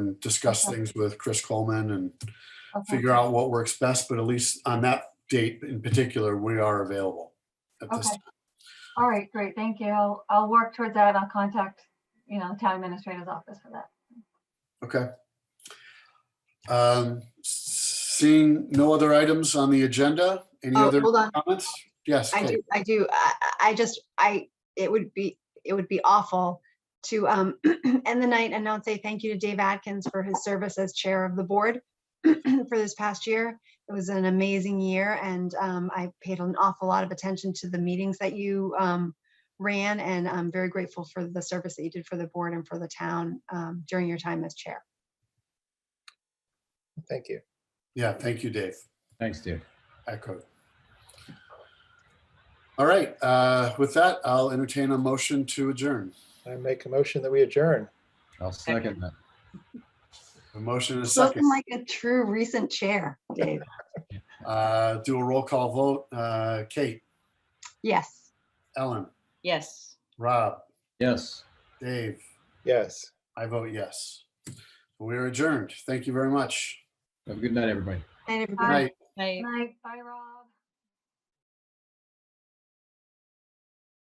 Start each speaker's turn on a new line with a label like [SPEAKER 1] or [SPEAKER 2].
[SPEAKER 1] and discuss
[SPEAKER 2] Okay.
[SPEAKER 1] things with Chris Coleman and
[SPEAKER 2] Okay.
[SPEAKER 1] figure out what works best, but at least on that date in particular, we are available. at this
[SPEAKER 2] Okay. All right, great, thank you. I'll, I'll work towards that. I'll contact, you know, town administrator's office for that.
[SPEAKER 1] Okay. Um, Seeing no other items on the agenda, any
[SPEAKER 3] Oh,
[SPEAKER 1] other
[SPEAKER 3] hold on.
[SPEAKER 1] comments? Yes,
[SPEAKER 3] I
[SPEAKER 1] Kate.
[SPEAKER 3] do, I do. I, I I just, I, it would be, it would be awful to um end the night and not say thank you to Dave Atkins for his service as chair of the board for this past year. It was an amazing year and um I paid an awful lot of attention to the meetings that you um ran and I'm very grateful for the service that you did for the board and for the town um during your time as chair.
[SPEAKER 4] Thank you.
[SPEAKER 1] yeah, thank you, Dave.
[SPEAKER 5] Thanks, Dave.
[SPEAKER 1] Echo. All right, uh, with that, I'll entertain a motion to adjourn.
[SPEAKER 4] I make a motion that we adjourn.
[SPEAKER 5] I'll second that.
[SPEAKER 1] A motion and a
[SPEAKER 3] Looking
[SPEAKER 1] second.
[SPEAKER 3] like a true recent chair, Dave.
[SPEAKER 1] Uh, Do a roll call vote. Uh, Kate,
[SPEAKER 3] Yes.
[SPEAKER 1] Ellen,
[SPEAKER 6] Yes.
[SPEAKER 1] Rob,
[SPEAKER 5] Yes.
[SPEAKER 1] Dave,
[SPEAKER 4] Yes.
[SPEAKER 1] I vote yes. We are adjourned. Thank you very much.
[SPEAKER 5] Have a good night, everybody.
[SPEAKER 3] And
[SPEAKER 1] Good
[SPEAKER 3] everybody.
[SPEAKER 1] night.
[SPEAKER 6] I.
[SPEAKER 2] Good night, bye, Rob.